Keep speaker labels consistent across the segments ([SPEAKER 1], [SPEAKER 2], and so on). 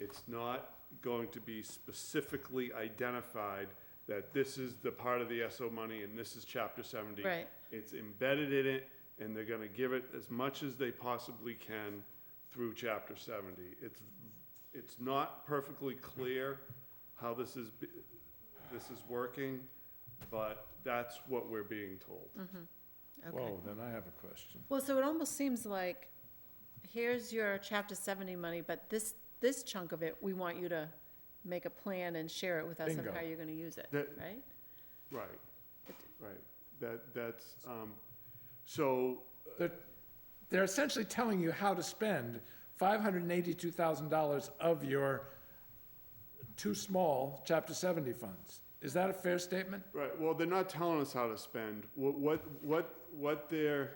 [SPEAKER 1] it's not going to be specifically identified that this is the part of the SO money and this is chapter seventy.
[SPEAKER 2] Right.
[SPEAKER 1] It's embedded in it, and they're gonna give it as much as they possibly can through chapter seventy. It's, it's not perfectly clear how this is, be- this is working, but that's what we're being told.
[SPEAKER 2] okay.
[SPEAKER 3] Whoa, then I have a question.
[SPEAKER 2] Well, so it almost seems like, here's your chapter seventy money, but this, this chunk of it, we want you to make a plan and share it with us of
[SPEAKER 3] Bingo.
[SPEAKER 2] how you're gonna use it,
[SPEAKER 1] That-
[SPEAKER 2] right?
[SPEAKER 1] Right,
[SPEAKER 2] It-
[SPEAKER 1] right. That, that's, um, so,
[SPEAKER 3] They're, they're essentially telling you how to spend five hundred and eighty-two thousand dollars of your too small chapter seventy funds. Is that a fair statement?
[SPEAKER 1] right, well, they're not telling us how to spend. What, what, what, what they're,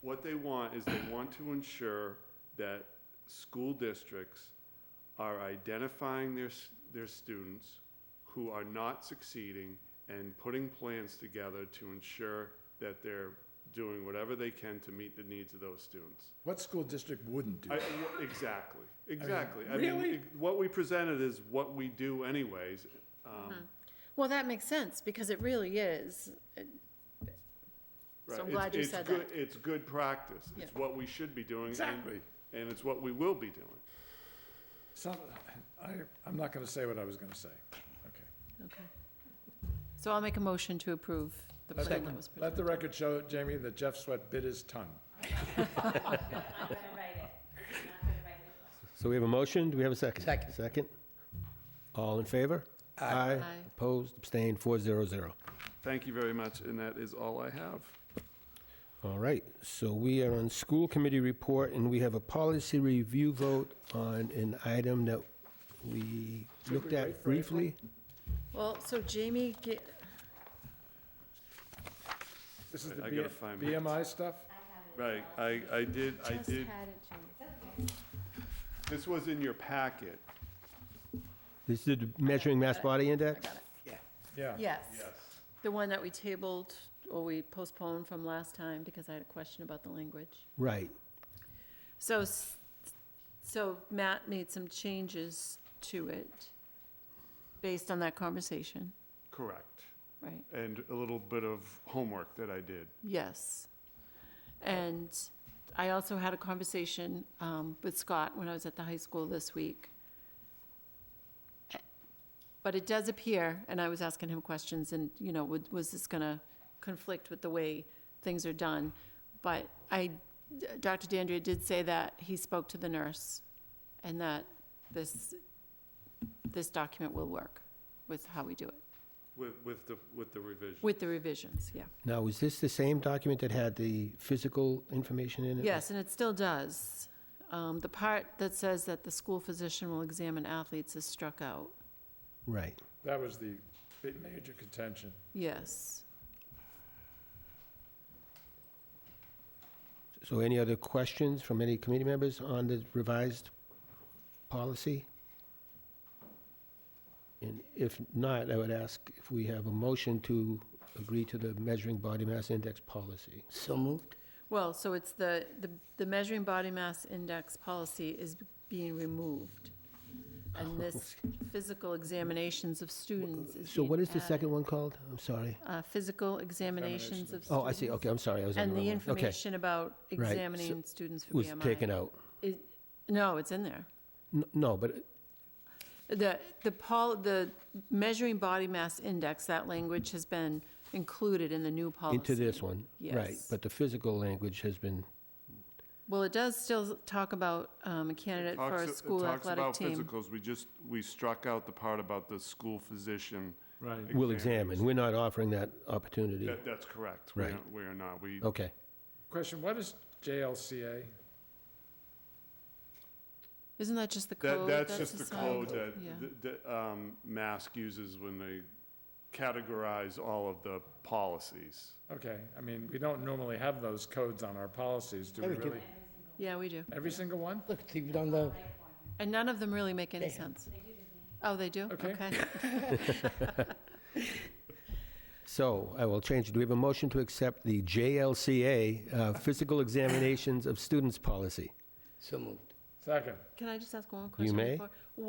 [SPEAKER 1] what they want is they want to ensure that school districts are identifying their, s- their students who are not succeeding and putting plans together to ensure that they're doing whatever they can to meet the needs of those students.
[SPEAKER 3] What school district wouldn't do
[SPEAKER 1] I-
[SPEAKER 3] that?
[SPEAKER 1] w- Exactly, exactly. I mean,
[SPEAKER 3] really?
[SPEAKER 1] it- what we presented is what we do anyways. um,
[SPEAKER 2] Well, that makes sense, because it really is, it-
[SPEAKER 1] right.
[SPEAKER 2] So I'm
[SPEAKER 1] It's-
[SPEAKER 2] glad you
[SPEAKER 1] it's
[SPEAKER 2] said
[SPEAKER 1] good-
[SPEAKER 2] that.
[SPEAKER 1] It's good practice. It's
[SPEAKER 2] Yeah.
[SPEAKER 1] what we should be doing. and-
[SPEAKER 3] Exactly.
[SPEAKER 1] And it's what we will be doing.
[SPEAKER 3] Some, I, I'm not gonna say what I was gonna say. Okay.
[SPEAKER 2] okay. So I'll make a motion to approve the
[SPEAKER 3] Let the-
[SPEAKER 2] plan that was
[SPEAKER 3] Let
[SPEAKER 2] presented.
[SPEAKER 3] the record show, Jamie, that Jeff Sweat bit his tongue.
[SPEAKER 4] I'm not gonna write it. I'm not gonna write it.
[SPEAKER 5] So we have a motion, do we have a second? Second. Second. All in favor? Aye.
[SPEAKER 2] Aye.
[SPEAKER 5] Opposed, abstained, four zero zero.
[SPEAKER 1] Thank you very much, and that is all I have.
[SPEAKER 5] All right, so we are on school committee report, and we have a policy review vote on an item that we looked at briefly.
[SPEAKER 2] Well, so Jamie, ga-
[SPEAKER 3] This is the
[SPEAKER 1] I gotta
[SPEAKER 3] B-
[SPEAKER 1] find my-
[SPEAKER 3] BMI stuff?
[SPEAKER 1] Right, I, I did, I
[SPEAKER 2] just
[SPEAKER 1] did,
[SPEAKER 2] had it, Jamie.
[SPEAKER 1] this was in your packet.
[SPEAKER 5] This is the measuring mass body index?
[SPEAKER 3] Yeah.
[SPEAKER 2] Yes, the one that we tabled, or we postponed from last time, because I had a question about the language.
[SPEAKER 5] Right.
[SPEAKER 2] So, s- so Matt made some changes to it based on that conversation,
[SPEAKER 1] Correct.
[SPEAKER 2] right?
[SPEAKER 1] And a little bit of homework that I did.
[SPEAKER 2] Yes. And I also had a conversation um, with Scott when I was at the high school this week. But it does appear, and I was asking him questions and, you know, would- was this going to conflict with the way things are done? But I, Dr. Dandria did say that he spoke to the nurse and that this, this document will work with how we do it,
[SPEAKER 1] With, with the, with the revision.
[SPEAKER 2] with the revisions, yeah.
[SPEAKER 5] Now, is this the same document that had the physical information in it?
[SPEAKER 2] Yes, and it still does. Um, The part that says that the school physician will examine athletes is struck out.
[SPEAKER 5] Right.
[SPEAKER 3] That was the big major contention.
[SPEAKER 2] Yes.
[SPEAKER 5] So any other questions from any committee members on the revised policy? And if not, I would ask if we have a motion to agree to the measuring body mass index policy.
[SPEAKER 6] So moved.
[SPEAKER 2] Well, so it's the, the- the measuring body mass index policy is being removed. And this physical examinations of students is
[SPEAKER 5] So what
[SPEAKER 2] being
[SPEAKER 5] is the
[SPEAKER 2] added.
[SPEAKER 5] second one called? I'm sorry.
[SPEAKER 2] Uh, Physical examinations of students.
[SPEAKER 5] Oh, I see, okay, I'm sorry, I was on
[SPEAKER 2] And
[SPEAKER 5] the
[SPEAKER 2] the
[SPEAKER 5] wrong one. Okay,
[SPEAKER 2] information about
[SPEAKER 5] so-
[SPEAKER 2] examining students for
[SPEAKER 5] was
[SPEAKER 2] BMI.
[SPEAKER 5] taken out.
[SPEAKER 2] It- No, it's in there.
[SPEAKER 5] N- No, but
[SPEAKER 2] The, the pol, the measuring body mass index, that language has been included in the new policy.
[SPEAKER 5] into this one, right.
[SPEAKER 2] Yes.
[SPEAKER 5] But the physical language has been,
[SPEAKER 2] Well, it does still talk about um, a candidate for
[SPEAKER 1] Talks-
[SPEAKER 2] a school athletic
[SPEAKER 1] It
[SPEAKER 2] team.
[SPEAKER 1] talks about physicals, we just, we struck out the part about the school physician.
[SPEAKER 3] Right.
[SPEAKER 5] will
[SPEAKER 1] examiners.
[SPEAKER 5] examine. We're not offering that opportunity.
[SPEAKER 1] That, that's correct. We
[SPEAKER 5] Right.
[SPEAKER 1] are- We are not, we,
[SPEAKER 5] Okay.
[SPEAKER 3] Question, what is JLCA?
[SPEAKER 2] Isn't that just the
[SPEAKER 1] that,
[SPEAKER 2] code?
[SPEAKER 1] that's just the
[SPEAKER 2] assigned?
[SPEAKER 1] code that,
[SPEAKER 2] Yeah.
[SPEAKER 1] th- that, um, Mask uses when they categorize all of the policies.
[SPEAKER 3] Okay, I mean, we don't normally have those codes on our policies, do we
[SPEAKER 6] Every-
[SPEAKER 3] really?
[SPEAKER 2] Yeah, we do.
[SPEAKER 3] Every single one?
[SPEAKER 6] Look, it's even on the,
[SPEAKER 2] And none of them really make any sense. Oh, they do?
[SPEAKER 3] Okay.
[SPEAKER 5] So I will change it. Do we have a motion to accept the JLCA, uh, Physical Examinations of Students Policy?
[SPEAKER 6] so moved.
[SPEAKER 3] Second.
[SPEAKER 2] Can I just ask one question?
[SPEAKER 5] may.
[SPEAKER 2] before?